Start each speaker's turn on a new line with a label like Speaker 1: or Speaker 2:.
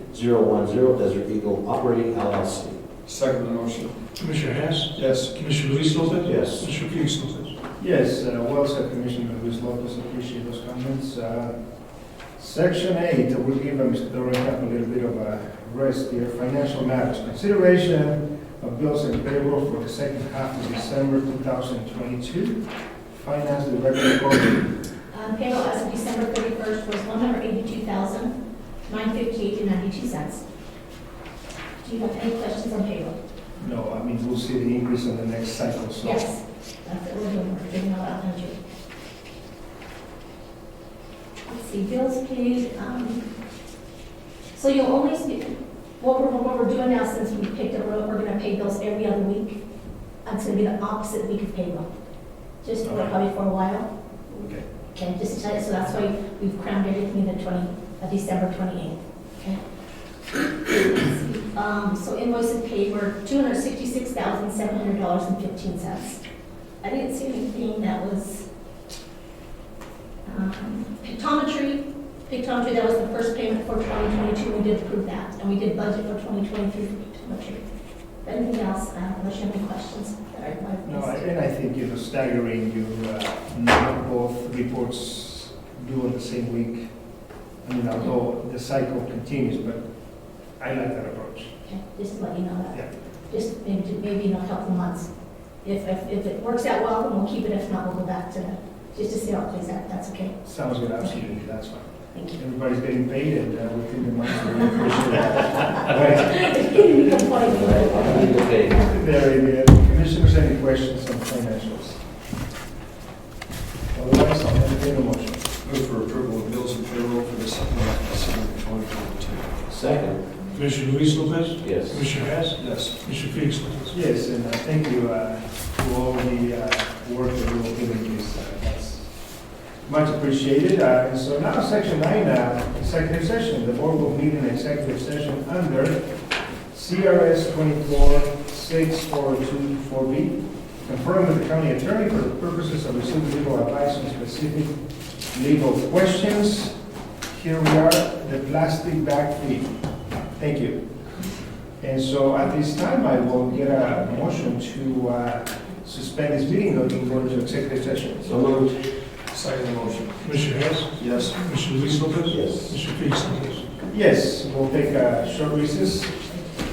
Speaker 1: Desert Eagle Operating LLC.
Speaker 2: Second the motion.
Speaker 3: Commissioner Hess,
Speaker 2: Yes.
Speaker 3: Commissioner Luis Lopez.
Speaker 1: Yes.
Speaker 3: Commissioner Felix Lopez.
Speaker 4: Yes, uh, well said, Commissioner Luis Lopez, appreciate those comments. Uh, Section eight, we'll give uh, Mr. Dorota a little bit of a rest here, financial matters. Consideration of bills and payroll for the second half of December two thousand twenty-two. Finance Director Coleman.
Speaker 5: Um, Payroll as of December 31st was $182,958.92. Do you have any questions on payroll?
Speaker 4: No, I mean, we'll see the increase on the next cycle, so.
Speaker 5: Yes, that's what we're doing, we're giving out 100. Let's see, bills paid, um, so you'll only, see- what we're, what we're doing now since we picked up, we're gonna pay bills every other week. That's gonna be the opposite week of payroll, just for
Speaker 4: Okay.
Speaker 5: probably for a while.
Speaker 4: Okay.
Speaker 5: Okay, just to tell you, so that's why we've crammed everything in the 20, uh, December 28th, okay? Um, So invoices paid were $266,700.15. I didn't see anything that was, um, pictometry, pictometry, that was the first payment for 2022, we did approve that, and we did budget for 2023 for pictometry. Anything else, uh, unless you have any questions? that I- I've
Speaker 4: No,
Speaker 5: missed?
Speaker 4: and I think, you know, staggering, you, uh, not both reports due on the same week. I mean, although the cycle continues, but I like that approach.
Speaker 5: Okay, Just to let you know
Speaker 4: Yeah.
Speaker 5: that. Just maybe, maybe in a couple months. If, if, if it works out well, then we'll keep it. If not, we'll go back to, just to see how it plays out. That's okay.
Speaker 4: Sounds good, absolutely, that's fine.
Speaker 5: Thank you.
Speaker 4: Everybody's getting paid and uh, within the month, we appreciate that.
Speaker 5: You can point
Speaker 1: All
Speaker 5: me.
Speaker 1: right, I'll leave the page.
Speaker 4: Right, Very good. uh, Commissioners, any questions on financials? Otherwise, I'll entertain a motion.
Speaker 2: Move for approval of bills and payroll for the second half of December 2022.
Speaker 1: Second.
Speaker 3: Commissioner Luis Lopez.
Speaker 1: Yes.
Speaker 3: Commissioner Hess,
Speaker 2: Yes.
Speaker 3: Commissioner Felix Lopez.
Speaker 4: Yes, and uh, thank you uh, to all the uh, work that you all did in this. uh, That's much appreciated. Uh, And so now, section nine, uh, executive session. The board will meet in executive session under CRS 24-6424B. Confirm with the county attorney for the purposes of receiving legal advice on specific legal questions. Here we are, the plastic bag fee. Thank you. And so at this time, I will get a motion to uh, suspend this meeting and go into executive session.
Speaker 1: So moved.
Speaker 2: Second the motion.
Speaker 3: Commissioner Hess,
Speaker 2: Yes.
Speaker 3: Commissioner Luis Lopez.
Speaker 1: Yes.
Speaker 3: Commissioner Felix Lopez.
Speaker 4: Yes, we'll take a short recess